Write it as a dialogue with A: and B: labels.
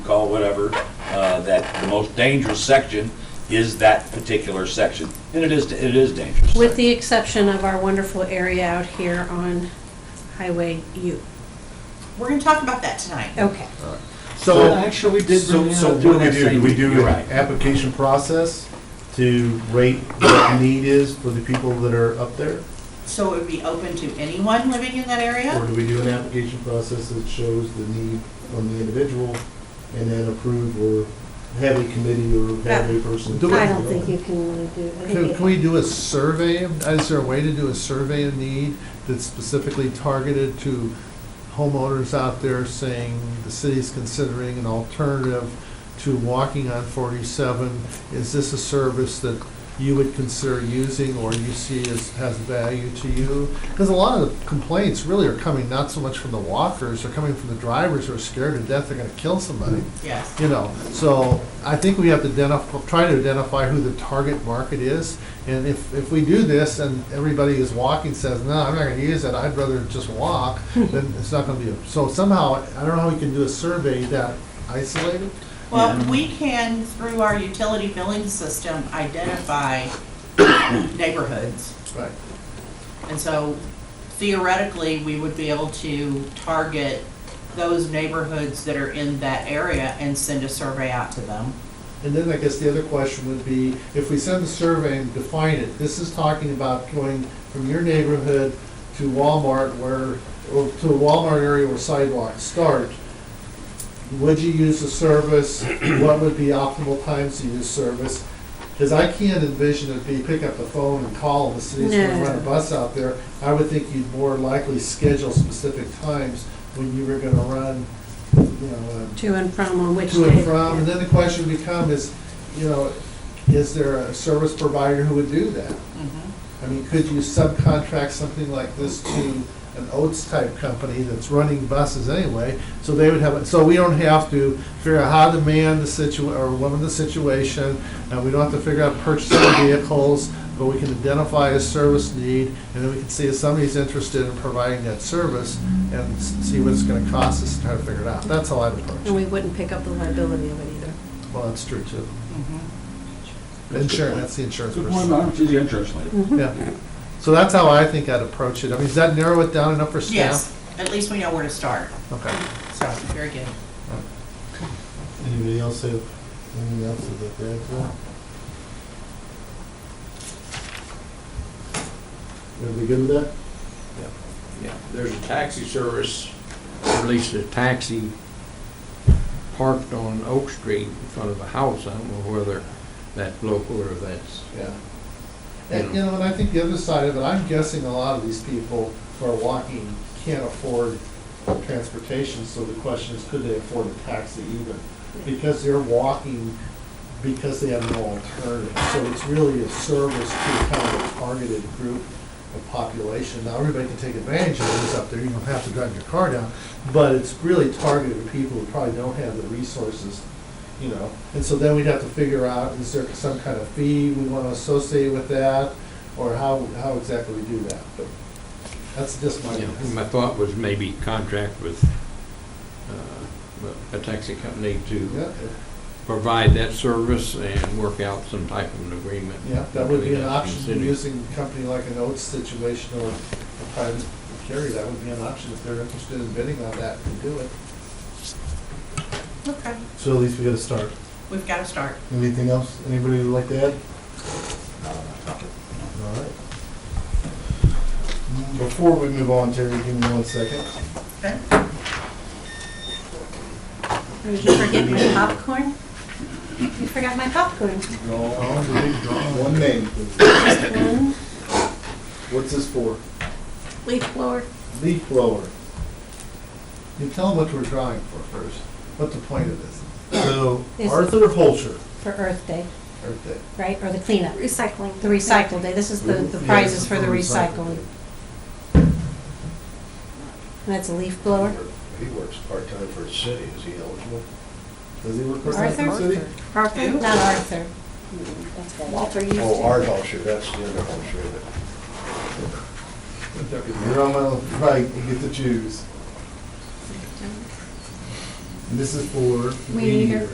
A: call whatever, uh, that the most dangerous section is that particular section. And it is, it is dangerous.
B: With the exception of our wonderful area out here on Highway U.
C: We're gonna talk about that tonight.
B: Okay.
D: So,
E: actually, we did
D: so,
E: bring
D: so
E: that
D: what
E: up
D: do we
E: last
D: do? Do we
E: time.
D: do
A: You're
D: an
A: right.
D: application process to rate what the need is for the people that are up there?
C: So it would be open to anyone living in that
D: Or
C: area?
D: do we do an application process that shows the need on the individual and then approve or have a committee or have a person?
E: Do it.
B: I don't think you can really do, I
E: Can
B: think
E: can
B: you-
E: we do a survey? of- Is there a way to do a survey of need that's specifically targeted to homeowners out there saying the city's considering an alternative to walking on 47? Is this a service that you would consider using or you see as, has value to you? Because a lot of the complaints really are coming not so much from the walkers, they're coming from the drivers who are scared to death they're going to kill somebody
C: Yes.
E: you know, so I think we have to identify, try to identify who the target market is. And if, if we do this and everybody is walking says, no, I'm not gonna use it, I'd rather just walk, then it's not gonna be, a- so somehow, I don't know how we can do a survey that isolated.
C: Well, we can, through our utility billing system, identify neighborhoods.
E: Right.
C: And so theoretically, we would be able to target those neighborhoods that are in that area and send a survey out to them.
E: And then I guess the other question would be, if we send the survey and define it, this is talking about going from your neighborhood to Walmart where, or to a Walmart area where sidewalks start. Would you use the service? What would be optimal times to use service? Because I can't envision it be pick up the phone and call and the city's gonna
B: No.
E: run a bus out there. I would think you'd more likely schedule specific times when you were gonna run, you know, a
B: to and from on which day.
E: to and from, and then the question becomes, you know, is there a service provider who would do that?
C: Mm-hmm.
E: I mean, could you subcontract something like this to an Oats-type company that's running buses anyway? So they would have, it- so we don't have to figure out how to man the situ, or woman the situation, and we don't have to figure out purchasing vehicles, but we can identify a service need, and then we can see if somebody's interested in providing that service, and s- see what it's gonna cost us to try to figure it out. That's how I'd approach it.
B: And we wouldn't pick up the liability of it either.
E: Well, that's true too.
C: Mhm.
E: Mm-hmm. Insurance, that's the insurance
A: Good point,
E: person.
A: Madam. She's the insurance lady.
E: Yeah. So that's how I think I'd approach it. I mean, does that narrow it down enough for staff?
C: Yes, at least we know where to start.
E: Okay.
C: So, very good.
D: Anybody else have, anything else that they have for? Everybody good with that?
F: Yeah, there's a taxi service, or at least a taxi parked on Oak Street in front of a house. I don't know whether that's local or that's,
E: Yeah. And, you know, and I think the other side of it, I'm guessing a lot of these people who are walking can't afford transportation, so the question is, could they afford a taxi even? Because they're walking because they have no alternative. So it's really a service to kind of a targeted group of population. Now, everybody can take advantage of this up there, you don't have to drive your car down, but it's really targeted to people who probably don't have the resources you know, and so then we'd have to figure out, is there some kind of fee we want to associate with that, or how, how exactly we do that, but that's just my,
F: you know, my thought was maybe contract with uh, a taxi company to
E: yeah,
F: provide that service and work out some type of an agreement.
E: yeah, that would be
F: between
E: an
F: us and
E: option,
F: city.
E: using a company like an Oates situation or a private carrier, that would be an option, if they're interested in bidding on that, to do it.
C: Okay,
D: So at least we got to start.
C: we've got to start.
D: Anything else, anybody would like to add? All right. Before we move on, Terry, give me one second.
C: Okay.
B: Did you forget my popcorn? You forgot my popcorn.
D: One name,
B: Just one
D: what's this for?
B: leaf blower.
D: Leaf blower.
E: You tell them what we're drawing for first, what the point of this,
D: So
B: Yes.
D: Arthur Holscher.
B: For Earth Day,
E: or that,
B: right, or the cleanup,
G: Recycling.
B: the recycle day. This is the, the prizes for the recycling. And that's a leaf blower.
H: He works part-time for the city, is he eligible?
D: Does he work for Arthur
B: Arthur?
D: City?
B: Arthur? Not Arthur.
G: Walter used
H: Oh,
G: to.
H: Art Hulsher, that's the other Hulsher that,
D: You're on my right, you get to choose.
I: And this is for
E: Weed eater.